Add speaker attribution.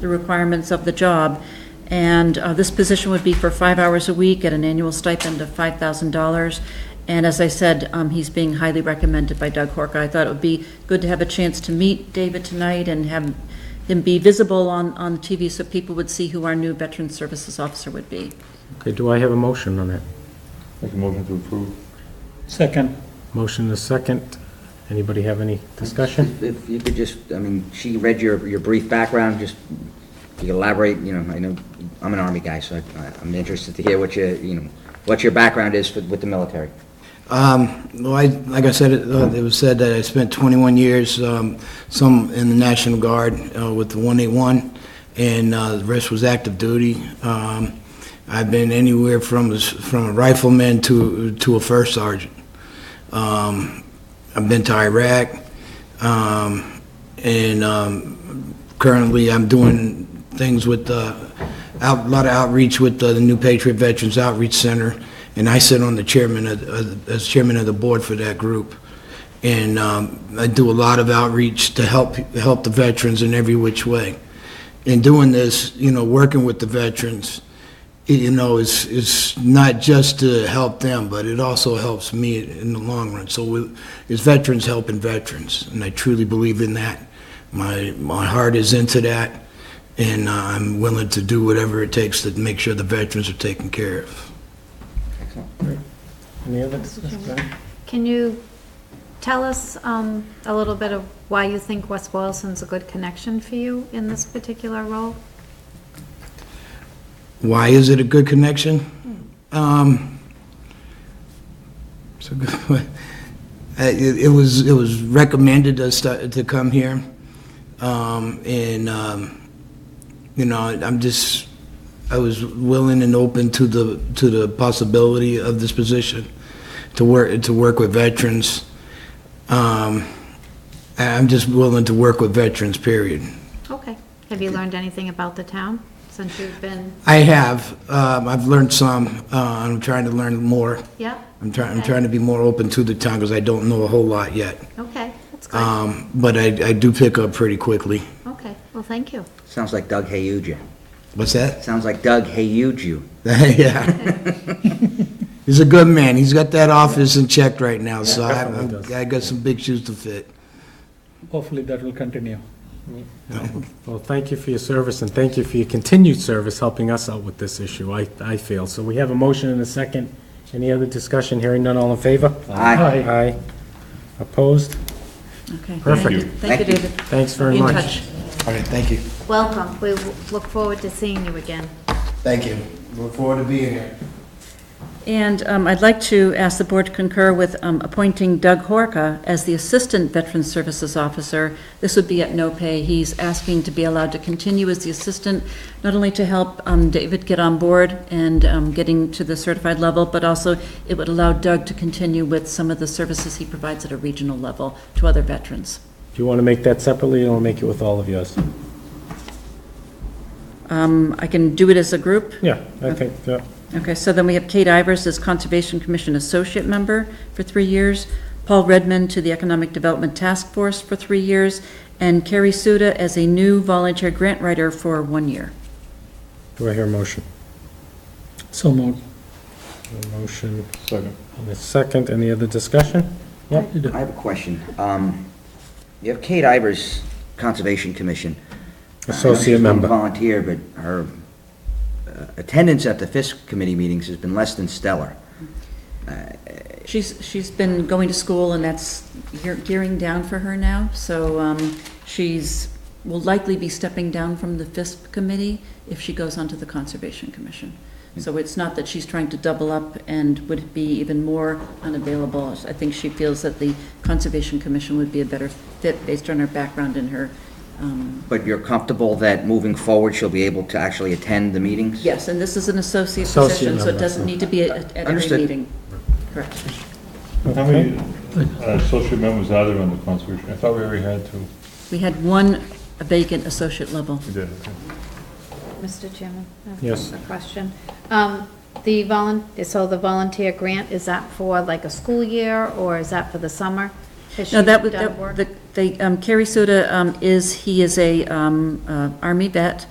Speaker 1: the requirements of the job. And uh, this position would be for five hours a week at an annual stipend of $5,000. And as I said, um, he's being highly recommended by Doug Horka. I thought it would be good to have a chance to meet David tonight and have him be visible on, on TV so people would see who our new Veteran Services Officer would be.
Speaker 2: Okay, do I have a motion on that?
Speaker 3: Make a motion to approve.
Speaker 4: Second.
Speaker 2: Motion is second. Anybody have any discussion?
Speaker 5: If you could just, I mean, she read your, your brief background, just if you elaborate, you know, I know, I'm an Army guy, so I- I'm interested to hear what your, you know, what your background is with with the military.
Speaker 6: Um, Well, I, like I said, it uh, it was said that I spent 21 years, um, some in the National Guard uh, with the 181, and uh, the rest was active duty. Um, I've been anywhere from, a s- from a rifleman to, to a first sergeant. Um, I've been to Iraq, um, and um, currently I'm doing things with, uh, out- a lot of outreach with uh, the New Patriot Veterans Outreach Center, and I sit on the chairman, of- of- as chairman of the board for that group. And um, I do a lot of outreach to help, help the veterans in every which way. In doing this, you know, working with the veterans, y- you know, it's, it's not just to help them, but it also helps me in the long run. So we- it's veterans helping veterans, and I truly believe in that. My, my heart is into that, and I'm willing to do whatever it takes to make sure the veterans are taken care of.
Speaker 5: Excellent.
Speaker 2: Any other discussion?
Speaker 7: Can you tell us um, a little bit of why you think West Boylston's a good connection for you in this particular role?
Speaker 6: Why is it a good connection? Um, it's a good, uh, it, it was, it was recommended us to, to come here. Um, and, um, you know, I'm just, I was willing and open to the, to the possibility of this position, to work, to work with veterans. Um, I- I'm just willing to work with veterans, period.
Speaker 7: Okay. Have you learned anything about the town since you've been,
Speaker 6: I have, um, I've learned some, uh, I'm trying to learn more.
Speaker 7: yeah?
Speaker 6: I'm trying, I'm
Speaker 7: Okay.
Speaker 6: trying to be more open to the town because I don't know a whole lot yet.
Speaker 7: Okay, that's good.
Speaker 6: Um, but I, I do pick up pretty quickly.
Speaker 7: Okay, well, thank you.
Speaker 5: Sounds like Doug Hayude you.
Speaker 6: What's that?
Speaker 5: Sounds like Doug Hayude you.
Speaker 6: Yeah. He's a good man. He's got that office in check right now, so I,
Speaker 2: definitely does.
Speaker 6: I- I got some big shoes to fit.
Speaker 4: Hopefully that will continue.
Speaker 2: Well, thank you for your service, and thank you for your continued service helping us out with this issue, I, I feel. So we have a motion and a second. Any other discussion? Hearing none, all in favor?
Speaker 5: Aye.
Speaker 2: Aye. Opposed?
Speaker 1: Okay.
Speaker 2: Perfect.
Speaker 1: Thank you, Thank you,
Speaker 5: Thank you.
Speaker 1: David.
Speaker 2: Thanks
Speaker 1: Be
Speaker 2: very
Speaker 1: in
Speaker 2: much.
Speaker 1: touch.
Speaker 6: All right, thank you.
Speaker 7: Welcome. We w- look forward to seeing you again.
Speaker 6: Thank you. Look forward to being here.
Speaker 1: And um, I'd like to ask the board to concur with um, appointing Doug Horka as the Assistant Veteran Services Officer. This would be at no pay. He's asking to be allowed to continue as the assistant, not only to help um, David get on board and um, getting to the certified level, but also it would allow Doug to continue with some of the services he provides at a regional level to other veterans.
Speaker 2: Do you want to make that separately, or I'll make it with all of yours?
Speaker 1: Um, I can do it as a group?
Speaker 2: Yeah, I think, yeah.
Speaker 1: Okay, so then we have Kate Ivers as Conservation Commission Associate Member for three years, Paul Redmond to the Economic Development Task Force for three years, and Carrie Suda as a new volunteer grant writer for one year.
Speaker 2: Do I hear a motion?
Speaker 4: So moved.
Speaker 2: A motion
Speaker 3: Second.
Speaker 2: and a second. Any other discussion? Yep, you do.
Speaker 5: I have a question. Um, You have Kate Ivers, Conservation Commission.
Speaker 2: Associate
Speaker 5: She's been a
Speaker 2: member.
Speaker 5: Volunteer, but her uh, attendance at the FISC committee meetings has been less than stellar.
Speaker 1: She's, she's been going to school, and that's gear- gearing down for her now, so um, she's, will likely be stepping down from the FISP committee if she goes onto the Conservation Commission.
Speaker 2: Hmm.
Speaker 1: So it's not that she's trying to double up and would be even more unavailable. I think she feels that the Conservation Commission would be a better fit based on her background and her, um,
Speaker 5: But you're comfortable that moving forward, she'll be able to actually attend the meetings?
Speaker 1: yes, and this is an associate
Speaker 2: Associate
Speaker 1: position, so it
Speaker 2: member.
Speaker 1: doesn't need to be at at every
Speaker 5: Understood.
Speaker 1: meeting. Correct.
Speaker 3: How many uh, associate members are there on the conservation? I thought we already had two.
Speaker 1: We had one vacant associate level.
Speaker 3: We did, okay.
Speaker 7: Mr. Chairman? I have
Speaker 2: Yes.
Speaker 7: A question. Um, The volun, so the volunteer grant, is that for like a school year or is that for the summer? Has
Speaker 1: No,
Speaker 7: she
Speaker 1: that would,
Speaker 7: done work?
Speaker 1: that- the, they, um, Carrie Suda um, is, he is a um, uh, Army vet,